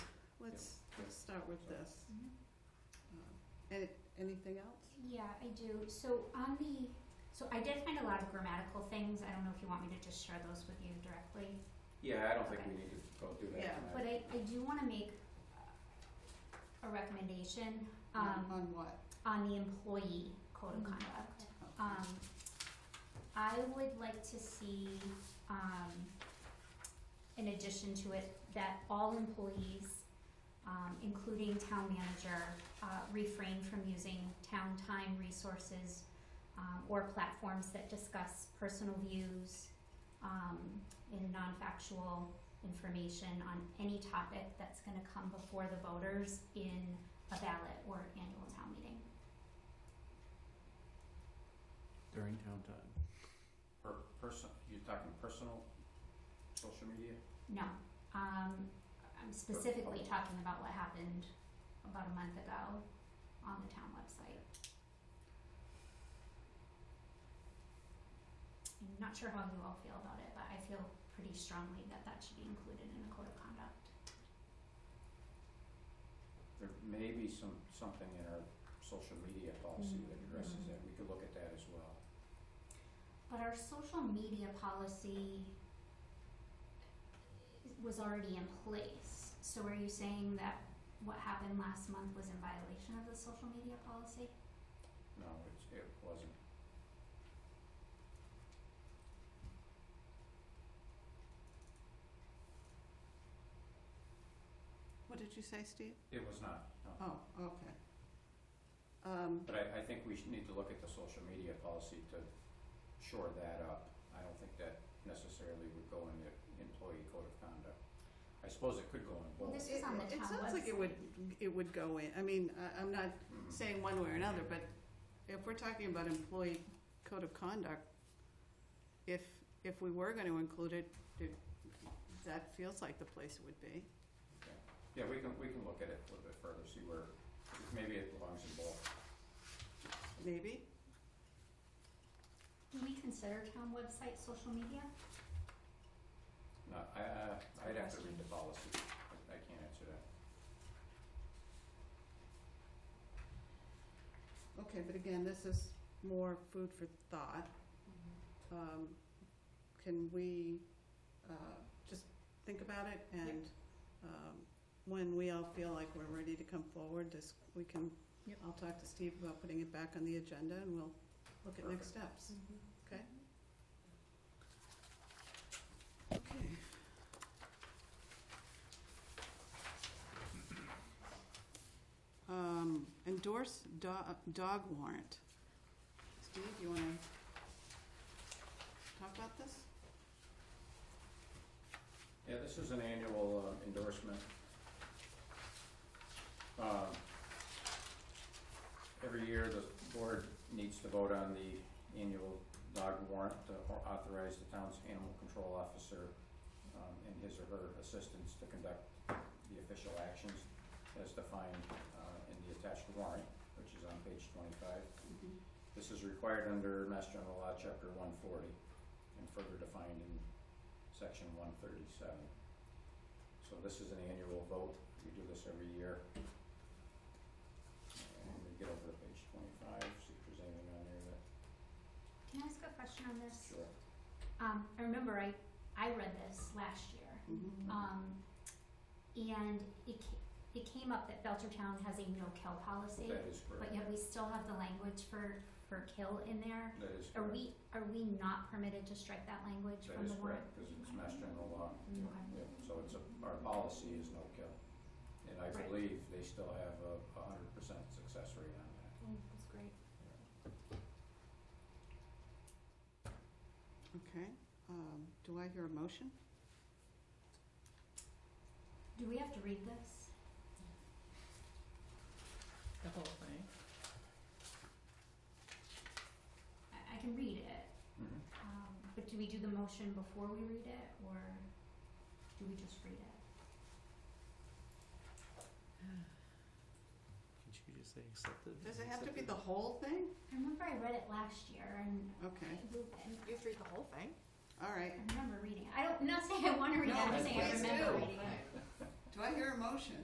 start with this. Uh, Any, anything else? Yeah, I do. So on the, so I did find a lot of grammatical things. I don't know if you want me to just share those with you directly, Yeah, I don't think we need to go do that Yeah. tonight. but I, I do want to make a recommendation um, On what? on the employee code of conduct. Um, I would like to see, um, in addition to it, that all employees, um, including town manager, uh, refrain from using town time resources, um, or platforms that discuss personal views, um, and non-factual information on any topic that's gonna come before the voters in a ballot or annual town meeting. during town time. Per person, you're talking personal social media? No, um, I'm specifically talking about what happened about a month ago on the town website. I'm not sure how you all feel about it, but I feel pretty strongly that that should be included in the code of conduct. There may be some, something in our social media policy that addresses Mhm. that. We could look at that as well. But our social media policy was already in place, so are you saying that what happened last month was in violation of the social media policy? No, it's, it wasn't. What did you say, Steve? It was not, no. Oh, okay. Um, But I, I think we should need to look at the social media policy to shore that up. I don't think that necessarily would go in the employee code of conduct. I suppose it could go in Well, both. this is on the it- town It sounds like it would, it would go in, I mean, I, I'm not Mhm. saying one way or another, but if we're talking about employee code of conduct, if, if we were gonna include it, it, that feels like the place it would be. Yeah, we can, we can look at it a little bit further, see where, maybe it belongs in both. Maybe? Do we consider town website social media? No, Uh, I, I- I'd have to question. read the policy. I I can't answer that. Okay, but again, this is more food for thought. Mm-hmm. Um, can we, uh, just think about it and, um, when we all feel like we're ready to come forward, this, we can, Yep. I'll talk to Steve about putting it back on the agenda and we'll look at next Perfect. steps. Okay. Okay. Um, endorse dog, dog warrant. Steve, you wanna talk about this? Yeah, this is an annual uh, endorsement. Um, Every year, the board needs to vote on the annual dog warrant to au- authorize the town's animal control officer um, and his or her assistants to conduct the official actions as defined uh, in the attached warrant, which is on page twenty-five. This is required under Mass General Law, Chapter one forty, and further defined in section one thirty-seven. So this is an annual vote, we do this every year. And we get over to page twenty-five, see if there's anything on there that, Can I ask a question on this? sure. Um, I remember I, I read this last year, Mhm. um, and it ca- it came up that Belchertown has a no-kill policy, That is but correct, yet we still have the language for, for kill in there. that is Are correct, we, are we not permitted to strike that language that from is the warrant? correct, because it's Mass General Law. Okay. Yeah, so it's a, our policy is no kill. And I Right. believe they still have a, a hundred percent success rate on that. That's great. Okay, um, do I hear a motion? Do we have to read this? The whole thing. I, I can read it, Mm-hmm. um, but do we do the motion before we read it, or do we just read it? Can't you just say accepted? Does it have to be the whole thing? I remember I read it last year and Okay, and You have to read the whole thing. all right. I remember reading it. I don't, I'm not saying I want to read it, I'm No, just saying I please remember do. reading it. Do I hear a motion?